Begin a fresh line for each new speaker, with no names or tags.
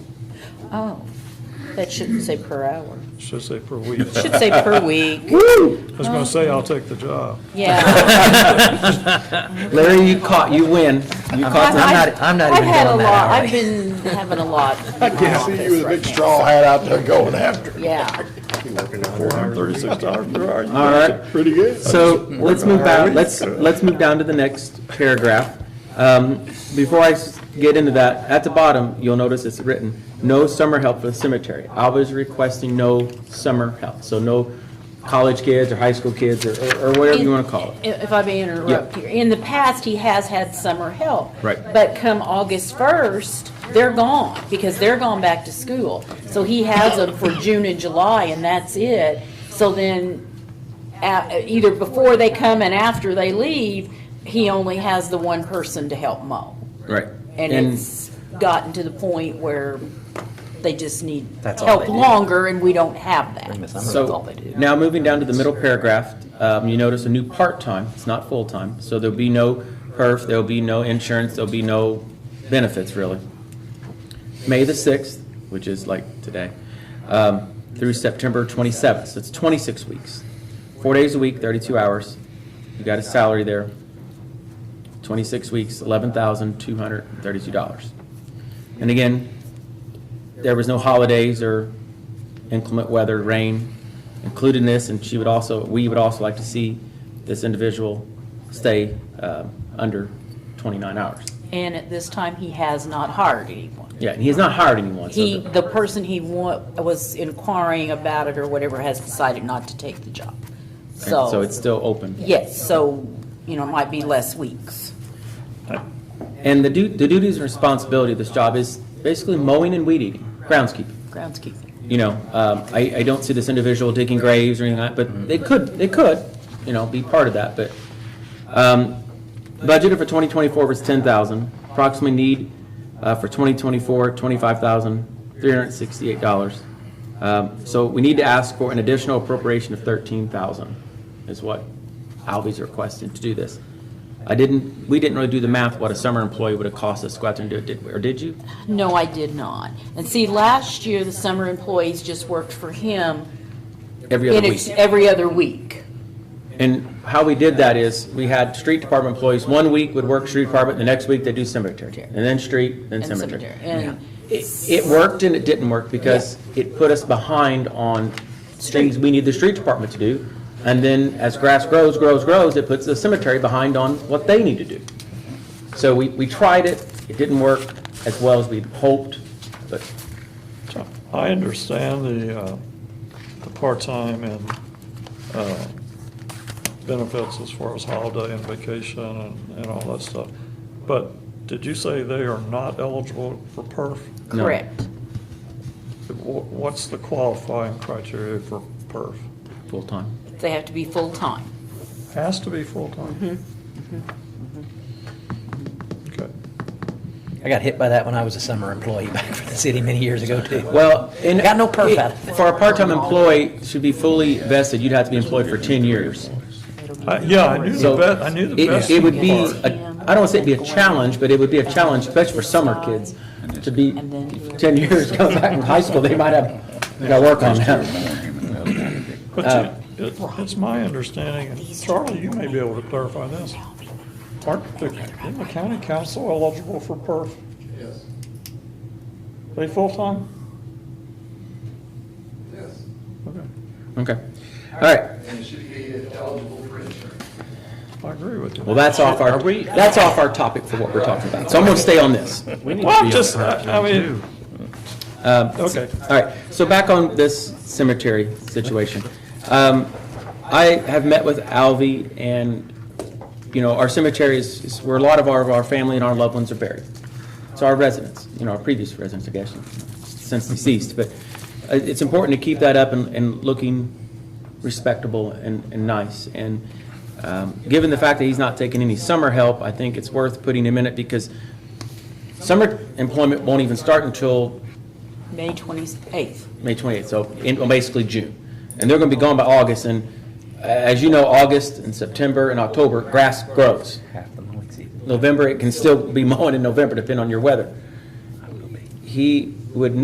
Oh, that shouldn't say per hour.
Should say per week.
It Should say per week.
I was gonna say, I'll take the job.
Yeah.
Larry, you caught, you win. You caught,
I'm not- I'm not even
have had a
going that
lot.
alley.
I've been having a lot.
I can't see you with a big straw hat out there going after.
Yeah.
Thirty-six dollars per hour.
all right.
Pretty good.
So let's move down, let's, let's move down to the next paragraph. Um, Before I s- get into that, at the bottom, you'll notice it's written, no summer help for the cemetery. I was requesting no summer help, so no college kids or high school kids or, or- or whatever you want to call it.
If if I may interrupt here, in the past, he has had summer help.
Right.
But come August 1st, they're gone, because they're gone back to school. So he has them for June and July, and that's it. So then, a- either before they come and after they leave, he only has the one person to help mow.
Right.
And it's gotten to the point where they just need
That's all
help
they do.
longer, and we don't have that. That's all
So,
they do.
now moving down to the middle paragraph, um, you notice a new part-time, it's not full-time, so there'll be no perf, there'll be no insurance, there'll be no benefits, really. May the 6th, which is like today, um, through September 27th, so it's 26 weeks. Four days a week, 32 hours, you got a salary there, 26 weeks, $11,232. And again, there was no holidays or inclement weather, rain included in this, and she would also, we would also like to see this individual stay uh, under 29 hours.
And at this time, he has not hired anyone.
Yeah, and he's not hired anyone, so
He,
the-
the person he wa, was inquiring about it or whatever has decided not to take the job. So.
so it's still open.
Yes, so, you know, it might be less weeks.
And the du- the duties and responsibility of this job is basically mowing and weed eating, groundskeeping.
Groundskeeping.
you know, um, I, I don't see this individual digging graves or anything like that, but they could, they could, you know, be part of that, but, um, budgeted for twenty twenty-four was ten thousand, approximately need, uh, for 2024, 25,368 dollars. Um, so we need to ask for an additional appropriation of thirteen thousand, is what Alvy's requested to do this. I didn't, we didn't really do the math, what a summer employee would have cost us to go out there and do it, did, we? or did you?
No, I did not. And see, last year, the summer employees just worked for him.
Every other
in
week.
ex- Every other week.
And how we did that is, we had street department employees, one week would work street department, the next week they do cemetery, and then street, then
in
cemetery.
And
It it worked and it didn't work, because it put us behind on things we need the street department to do, and then as grass grows, grows, grows, it puts the cemetery behind on what they need to do. So we, we tried it, it didn't work as well as we'd hoped, but
I understand the, uh, the part-time and, uh, benefits as far as holiday and vacation and, and all that stuff. But did you say they are not eligible for perf?
No.
Correct.
Wh- What's the qualifying criteria for perf?
full-time.
They have to be full-time.
Has to be full-time? Okay.
I got hit by that when I was a summer employee back for the city many years ago, too.
Well, and.
Got no perf out of it.
For a part-time employee, should be fully vested, you'd have to be employed for ten years.
I- Yeah, I knew the
So
best, I knew the
it,
best.
it would be,
part.
a- I don't want to say it'd be a challenge, but it would be a challenge, especially for summer kids, to be ten years, come back from high school, they might have, they gotta work on that.
But you- it- it's my understanding, and Charlie, you may be able to clarify this. Aren't the, isn't the county council eligible for perf? Yes. They full-time? Yes. Okay,
Okay, all right,
I agree with you.
well, that's off our, that's off our topic for what we're talking about, so I'm gonna stay on this.
Well, just, I I mean, uh, okay.
All right, so back on this cemetery situation. Um, I have met with Alvy and, you know, our cemetery is, is where a lot of our, of our family and our loved ones are buried. It's our residents, you know, our previous residents, I guess, since deceased, but uh, it's important to keep that up and, and looking respectable and, and nice. And, um, given the fact that he's not taking any summer help, I think it's worth putting him in it because summer employment won't even start until
May 28th.
May 28th, so in, well, basically June. And they're going to be gone by August, and uh, as you know, August and September and October, grass grows.
Half the mowing season.
November, it can still be mowing in November, depending on your weather. He would need